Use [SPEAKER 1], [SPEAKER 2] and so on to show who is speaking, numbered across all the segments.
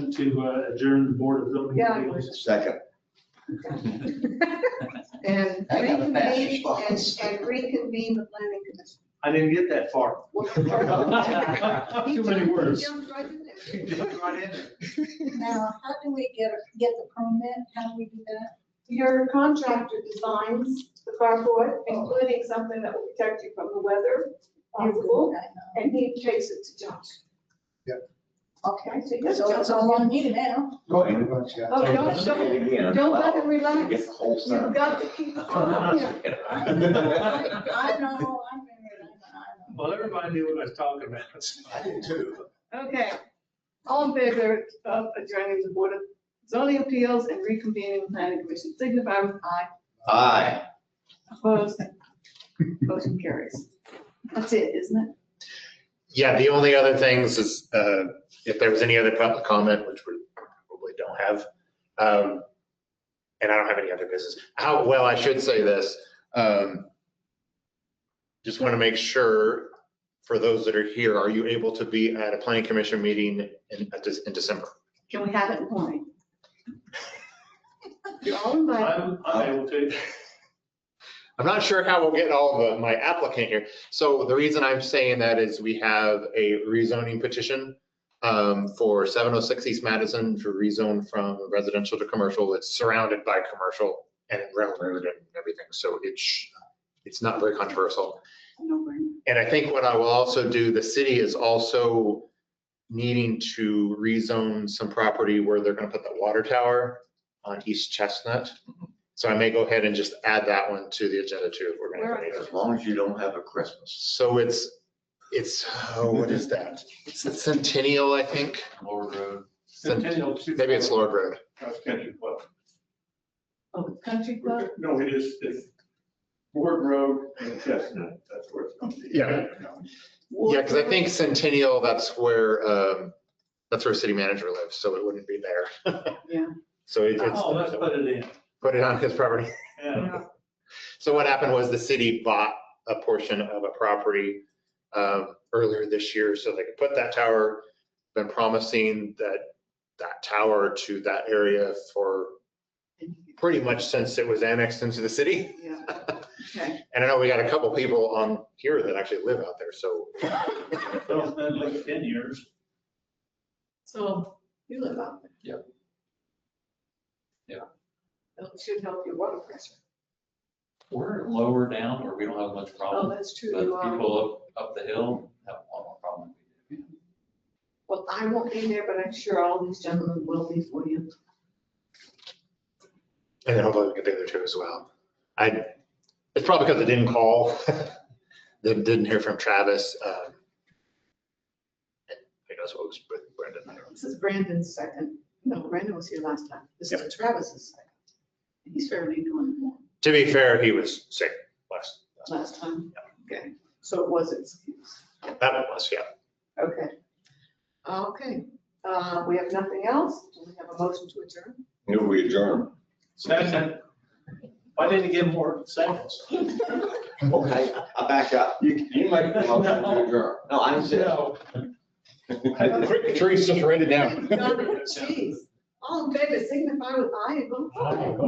[SPEAKER 1] motion to uh, adjourn the Board of Zoning
[SPEAKER 2] Yeah.
[SPEAKER 1] Appeals.
[SPEAKER 3] Second.
[SPEAKER 2] And
[SPEAKER 3] I got a
[SPEAKER 2] reconvene,
[SPEAKER 3] fast
[SPEAKER 2] and
[SPEAKER 3] response.
[SPEAKER 2] and reconvene the planning
[SPEAKER 1] I didn't get that far.
[SPEAKER 2] commission.
[SPEAKER 1] Too many words.
[SPEAKER 2] He jumped right in there.
[SPEAKER 1] Jumped right in there.
[SPEAKER 4] Now, how do we get, get the permit? How do we do that?
[SPEAKER 2] Your contractor designs the carport, including something that will protect you from the weather, possible, and he takes it to Josh.
[SPEAKER 4] Okay,
[SPEAKER 2] so you-
[SPEAKER 4] so it's all on you now.
[SPEAKER 5] Go ahead, Bunch, yeah.
[SPEAKER 2] Oh, don't, don't, don't let him relax. You've got to keep on.
[SPEAKER 4] I I know, I figured, I know.
[SPEAKER 1] Well, everybody knew what I was talking about.
[SPEAKER 3] I did too.
[SPEAKER 2] Okay, all in favor of adjourning the Board of Zoning Appeals and reconvening the planning commission, signify with aye.
[SPEAKER 3] Aye.
[SPEAKER 2] Opposed? Motion carries. That's it, isn't it?
[SPEAKER 6] Yeah, the only other things is, uh, if there was any other public comment, which we probably don't have, um, and I don't have any other business. How, well, I should say this, um, just want to make sure, for those that are here, are you able to be at a planning commission meeting in, at this- in December?
[SPEAKER 2] Can we have it in point? You're all invited.
[SPEAKER 1] I'm, I'm able to.
[SPEAKER 6] I'm not sure how we'll get all of my applicant here. So the reason I'm saying that is we have a rezoning petition um, for 706 East Madison to rezone from residential to commercial. It's surrounded by commercial and railroad and everything. So it's, it's not very controversial. And I think what I will also do, the city is also needing to rezone some property where they're gonna put the water tower on East Chestnut. So I may go ahead and just add that one to the agenda too. if we're gonna do
[SPEAKER 3] As
[SPEAKER 6] it.
[SPEAKER 3] long as you don't have a Christmas.
[SPEAKER 6] So it's, it's, oh, what is that? It's the Centennial, I think.
[SPEAKER 3] Lord Road.
[SPEAKER 6] Cent- Maybe it's Lord Road.
[SPEAKER 1] That's Country Club.
[SPEAKER 2] Oh, Country Club,
[SPEAKER 1] No, it is, it's Ward Road and Chestnut, that's where it's going to be.
[SPEAKER 6] Yeah. Yeah, because I think Centennial, that's where, um, that's where city manager lives, so it wouldn't be there.
[SPEAKER 2] Yeah.
[SPEAKER 6] So it- it's.
[SPEAKER 1] Oh, let's put it in.
[SPEAKER 6] Put it on his property.
[SPEAKER 1] Yeah.
[SPEAKER 6] So what happened was the city bought a portion of a property um, earlier this year so they could put that tower. Been promising that, that tower to that area for pretty much since it was annexed into the city.
[SPEAKER 2] Yeah, okay.
[SPEAKER 6] And I know we got a couple people on here that actually live out there, so.
[SPEAKER 1] So it's been like 10 years.
[SPEAKER 2] So you live out there.
[SPEAKER 5] Yep. Yeah.
[SPEAKER 2] That should help your water pressure.
[SPEAKER 7] We're lower down where we don't have much
[SPEAKER 2] Oh,
[SPEAKER 7] problem,
[SPEAKER 2] that's true.
[SPEAKER 7] but
[SPEAKER 2] You are.
[SPEAKER 7] people up, up the hill have a lot more problem. than we do.
[SPEAKER 2] Well, I won't be there, but I'm sure all these gentlemen will be for you.
[SPEAKER 6] And then hopefully we can do there too as well. I, it's probably because I didn't call, didn't didn't hear from Travis. um, and I guess what was Brendan. I don't know.
[SPEAKER 2] This is Brandon's second. No, Brandon was here last time. This is Travis's second. And He's fairly doing well
[SPEAKER 6] To be fair, he was sick last,
[SPEAKER 2] last time. Okay, so it was excused.
[SPEAKER 6] that one was, yeah.
[SPEAKER 2] Okay. Okay, uh, we have nothing else? Do we have a motion to adjourn?
[SPEAKER 3] Knew we adjourned.
[SPEAKER 1] Second. Why didn't you get more seconds?
[SPEAKER 3] Okay, I back up. You, you make the motion to adjourn. No, I said.
[SPEAKER 6] Tree just ran it down.
[SPEAKER 2] Jeez, all in favor, signify with aye and vote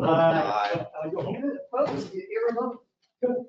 [SPEAKER 2] aye.
[SPEAKER 3] Aye.
[SPEAKER 2] Opposed, you're irrevocable.